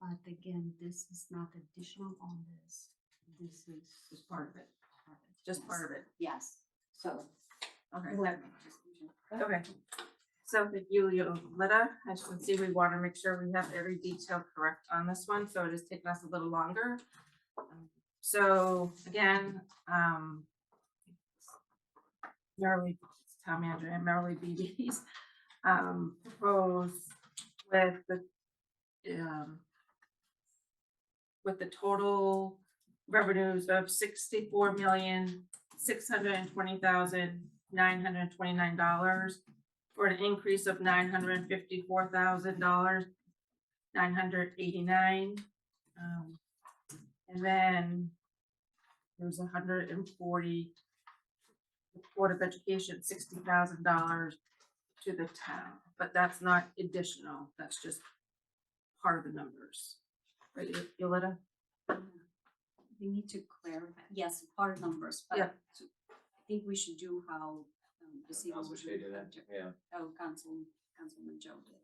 But again, this is not additional on this. This is. Just part of it, just part of it, Yes, so. okay. Right. Okay. So thank you, Yoletta, as you can see, we want to make sure we have every detail correct on this one, so it has taken us a little longer. Um, So again, um. Merrily, town manager and Merrily BD's, um, proposed with the, um. With the total revenues of sixty-four million, six hundred and twenty thousand, nine hundred and twenty-nine dollars for an increase of nine hundred and fifty-four thousand dollars, nine hundred eighty-nine. Um, and then there's a hundred and forty Board of Education, sixty thousand dollars to the town, but that's not additional, that's just part of the numbers. Right, Yo- Yoletta? We need to clarify, yes, part numbers, but Yeah. to- I think we should do how um, the CEO Council was Shay did it, referring to- yeah, Oh, Council, Councilman Joe did,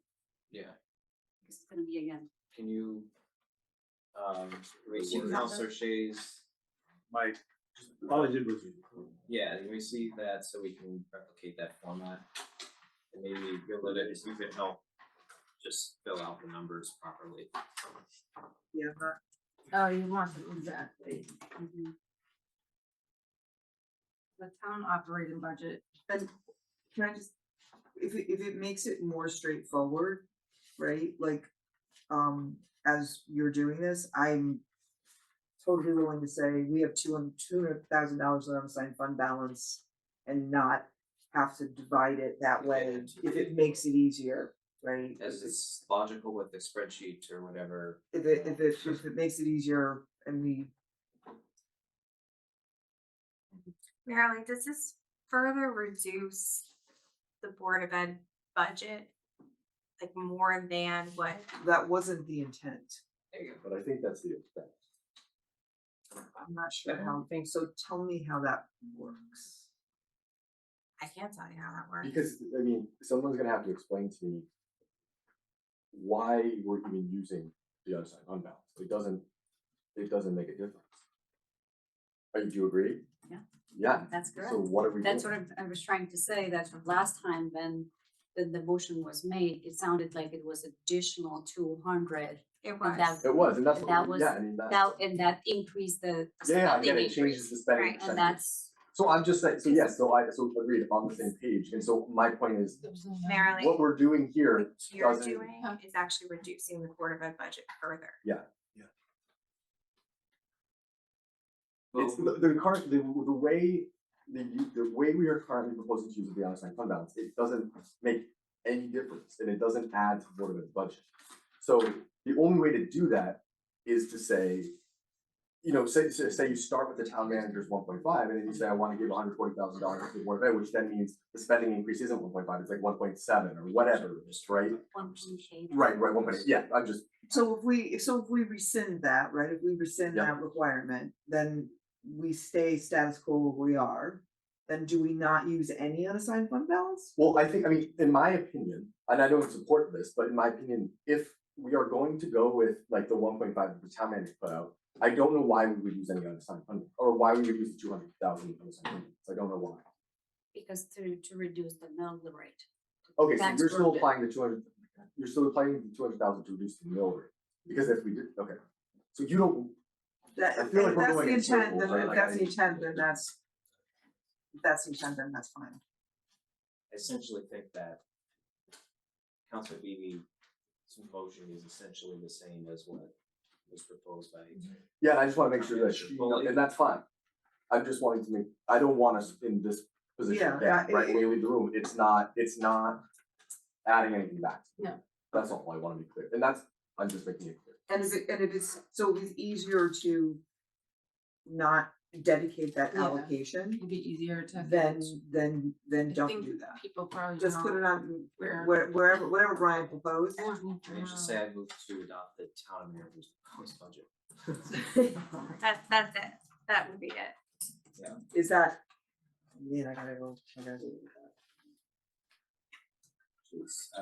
yeah, because it's gonna be again, can you? Um, you read have Council Shay's, Mike, all I did was. yeah, can we see that so we can replicate that format? And maybe Yolanda, if you could help, just fill out the numbers properly. Yeah. Oh, you want it, exactly. Mm-hmm. Mhm. The town operating budget Can I just, if it, if it makes it more straightforward, right, like, um, as you're doing this, I'm. Totally willing to say, we have two hundred, two hundred thousand dollars in unassigned fund balance and not have to divide it that way, if it makes it easier, right? As it's logical with the spreadsheet or whatever. If it, if it, if it makes it easier and we Marilyn, does this further reduce the Board of Ed budget? Like more than what, that wasn't the intent. There you go. But I think that's the effect. I'm not sure how, so tell me how that works. I can't tell you how that works. Because, I mean, someone's gonna have to explain to me why we're even using the other side unbalanced. It doesn't, it doesn't make a difference. Uh, Do you agree? Yeah. Yeah, that's correct. so what are we doing? That's what I'm- I was trying to say, that the last time when the, the motion was made, it sounded like it was additional two hundred. It But was. that- It was, and that's, That what we- was- yeah, I mean, that's, Now, and that increased the. yeah, yeah, spending again, it changes increase, the spending Right, And percentage. that's, So I'm just saying, so yes, so I, so agreed, I'm on the same page, and so my point is, Marilyn, what what we're doing here you're doesn't- doing is actually reducing the Board of Ed budget further. It's the, the current, the, the way, the, u- the way we are currently proposing to use the unassigned fund balance, it doesn't make any difference, and it doesn't add to Board of Ed's budget. So the only way to do that is to say, you know, say, say, say you start with the town manager's one point five, and then you say, I wanna give hundred forty thousand dollars to the Board of Ed, which then means the spending increase isn't one point five, it's like one point seven or whatever, just right? one PK. Right, right, one point, yeah, I'm just, So if we, if- so if we rescind that, right, if we rescind Yeah. that requirement, then we stay status quo where we are. Then do we not use any unassigned fund balance? Well, I think, I mean, in my opinion, and I don't support this, but in my opinion, if we are going to go with like the one point five that the town manager put out, I don't know why we would use any unassigned funding, or why we would use the two hundred thousand unassigned funding, I don't know why. Because to, to reduce the mill rate. Okay, so That's you're still correct. applying the two hundred, you're still applying the two hundred thousand to reduce the mill rate, because if we did, okay. So you don't, That, I if feel like if we're that's going the in intent, circles, then I- if I- that's the intent, then that's. If that's the intent, then that's fine. I essentially think that Council Beebe's motion is essentially the same as what was proposed by. yeah, I just wanna make sure that, Sure. you know, and that's fine. I'm just wanting to make, I don't want us in this position Yeah, again, I- right, when we leave the room, it's not, it's not adding anything back. No. That's all I wanna be clear, and that's, I'm just making it clear. And if it, and if it's, so it's easier to. Not dedicate that Yeah. allocation, It'd be easier to. then, then, then I don't think do that. People probably Just put it on Where- where- wherever, whatever Brian proposed. Can you just say I moved to adopt the town of manager's proposed budget? That's, that's it. That would be it. Is that? Man, I gotta go, I gotta. It's- uh,